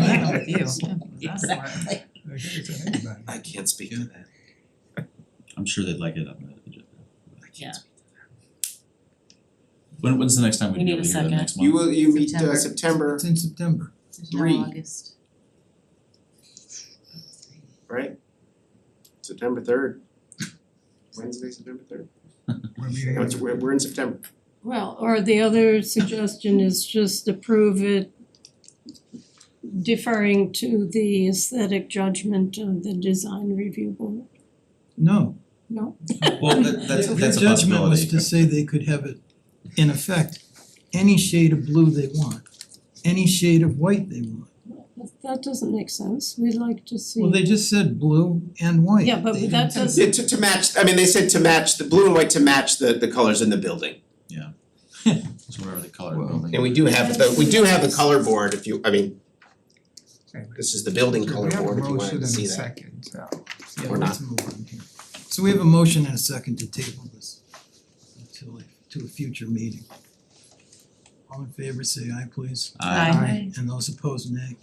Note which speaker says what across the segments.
Speaker 1: with you. That's smart.
Speaker 2: Exactly.
Speaker 3: It's an anybody.
Speaker 4: I can't speak to that.
Speaker 5: I'm sure they'd like it on the agenda.
Speaker 4: I
Speaker 1: Yeah.
Speaker 4: can't speak to
Speaker 5: When when's the next time
Speaker 1: We
Speaker 5: we'd be
Speaker 1: need
Speaker 5: able
Speaker 1: a
Speaker 5: to hear that
Speaker 1: second.
Speaker 5: next
Speaker 4: that.
Speaker 5: month?
Speaker 4: You will, you meet uh
Speaker 2: September.
Speaker 4: September,
Speaker 3: It's in September.
Speaker 2: There's no
Speaker 4: Three.
Speaker 2: August.
Speaker 4: right? September third. Wednesday, September third.
Speaker 3: We're meeting on
Speaker 4: That's- We're we're in September.
Speaker 6: Well, or the other suggestion is just approve it deferring to the aesthetic judgment of the design review board,
Speaker 3: No.
Speaker 6: no?
Speaker 5: Well, that that's
Speaker 3: Their-
Speaker 5: that's a possibility.
Speaker 3: Their judgment was to say they could have it, in effect, any shade of blue they want, any shade of white they want.
Speaker 6: That- That doesn't make sense, we'd like to see.
Speaker 3: Well, they just said blue and white.
Speaker 6: Yeah, but
Speaker 3: They
Speaker 6: that
Speaker 3: didn't say-
Speaker 6: doesn't-
Speaker 4: Yeah, to to match, I mean, they said to match the blue and white to match the the colors in the building.
Speaker 5: So whatever the color
Speaker 3: Well,
Speaker 5: building.
Speaker 4: And we do have the, we do have the color board if you, I mean, this is the building
Speaker 3: So
Speaker 4: color board if you wanted to see
Speaker 3: We have a
Speaker 4: that.
Speaker 3: motion and a second, so, yeah,
Speaker 4: Or
Speaker 3: let's move on here. So we have a motion and a second to table this until, a- to a future meeting. All in favor, say aye please.
Speaker 5: Aye.
Speaker 1: Aye.
Speaker 3: And those opposed, nay.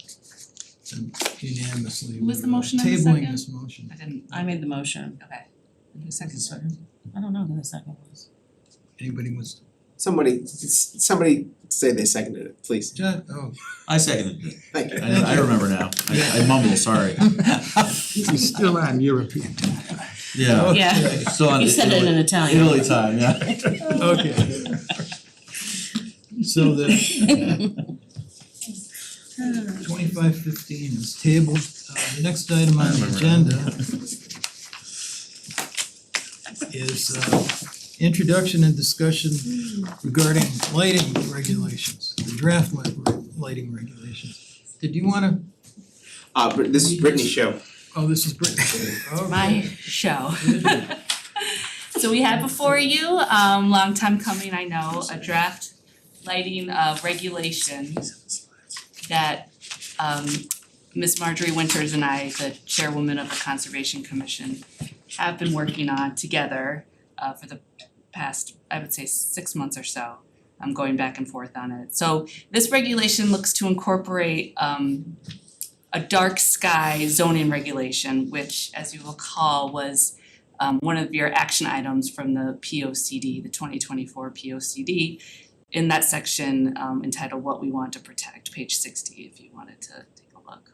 Speaker 3: And unanimously,
Speaker 7: Was the
Speaker 3: we're, uh,
Speaker 7: motion and the
Speaker 3: tabling
Speaker 7: second?
Speaker 3: this motion.
Speaker 1: I didn't, I made the motion.
Speaker 7: Okay.
Speaker 1: Who seconded it? I don't know who the second was.
Speaker 3: Anybody wants,
Speaker 4: Somebody, s- somebody say they seconded it, please.
Speaker 3: John, oh,
Speaker 5: I seconded it.
Speaker 4: Thank you.
Speaker 5: I know- I remember now. I I mumble, sorry.
Speaker 3: he's still on European time.
Speaker 5: Yeah.
Speaker 1: Yeah.
Speaker 5: Still on
Speaker 1: You said it in
Speaker 5: Italy,
Speaker 1: Italian.
Speaker 5: Italy time, yeah.
Speaker 3: Okay. So the twenty-five fifteen is tabled, uh the next item on the agenda is uh introduction and discussion regarding lighting regulations, the draft li- lighting regulations. Did you wanna,
Speaker 4: Uh, Br- this is Brittany's show.
Speaker 3: oh, this is Brittany, okay.
Speaker 7: my show. So we had before you, um long time coming, I know, a draft lighting uh regulation that um Ms. Marjorie Winters and I, the chairwoman of the Conservation Commission, have been working on together uh for the past, I would say, six months or so. I'm going back and forth on it. So this regulation looks to incorporate um a dark sky zoning regulation, which as you recall was um, one of your action items from the P O C D, the twenty twenty four P O C D. In that section um, entitled What We Want to Protect, page sixty, if you wanted to take a look.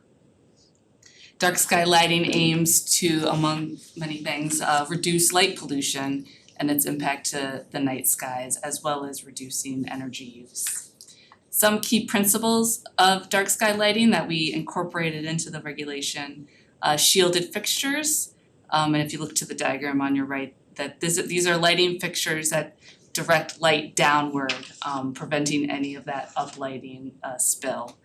Speaker 7: Dark sky lighting aims to, among many things, uh, reduce light pollution and its impact to the night skies as well as reducing energy use some key principles of dark sky lighting that we incorporated into the regulation. Uh, shielded fixtures, um, and if you look to the diagram on your right, that this, these are lighting fixtures that direct light downward, um, preventing any of that uplighting uh, spill.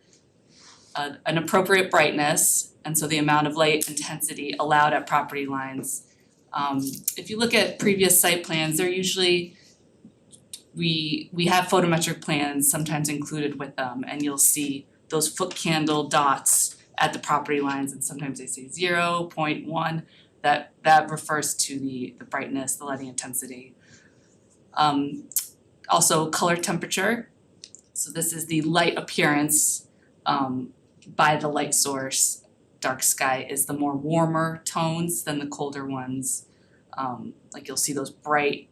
Speaker 7: Uh, an appropriate brightness, and so the amount of light intensity allowed at property lines. Um, if you look at previous site plans, they're usually we we have photometric plans sometimes included with them and you'll see those foot candle dots at the property lines and sometimes they say zero point one. That that refers to the the brightness, the lighting intensity. Um also color temperature. So this is the light appearance um by the light source. Dark sky is the more warmer tones than the colder ones. Um like you'll see those bright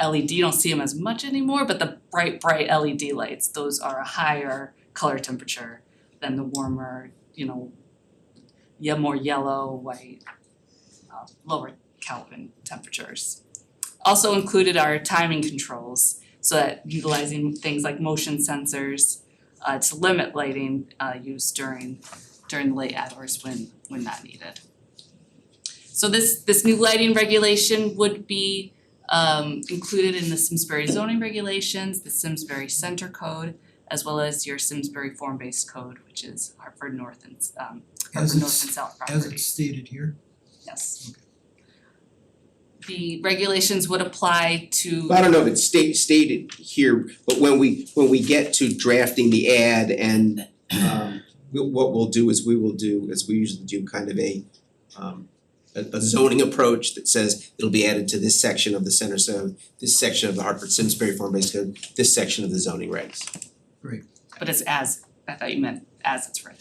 Speaker 7: LED, you don't see them as much anymore, but the bright, bright LED lights, those are a higher color temperature than the warmer, you know, yeah, more yellow, white, uh, lower Kelvin temperatures. Also included are timing controls, so that utilizing things like motion sensors uh, to limit lighting uh, use during during late hours when when not needed. So this this new lighting regulation would be um included in the Simsbury zoning regulations, the Simsbury Center Code, as well as your Simsbury Form-Based Code, which is Hartford North and um
Speaker 3: As
Speaker 7: Hartford North
Speaker 3: it's,
Speaker 7: and South properties.
Speaker 3: as it's stated here,
Speaker 7: Yes. The regulations would apply to
Speaker 4: I don't know if it's sta- stated here, but when we, when we get to drafting the ad and um we'll- what we'll do is we will do, as we usually do, kind of a um a a zoning approach that says it'll be added to this section of the center zone, this section of the Hartford Simsbury Farm Based Code, this section of the zoning regs.
Speaker 3: great.
Speaker 7: but it's as, I thought you meant as it's written.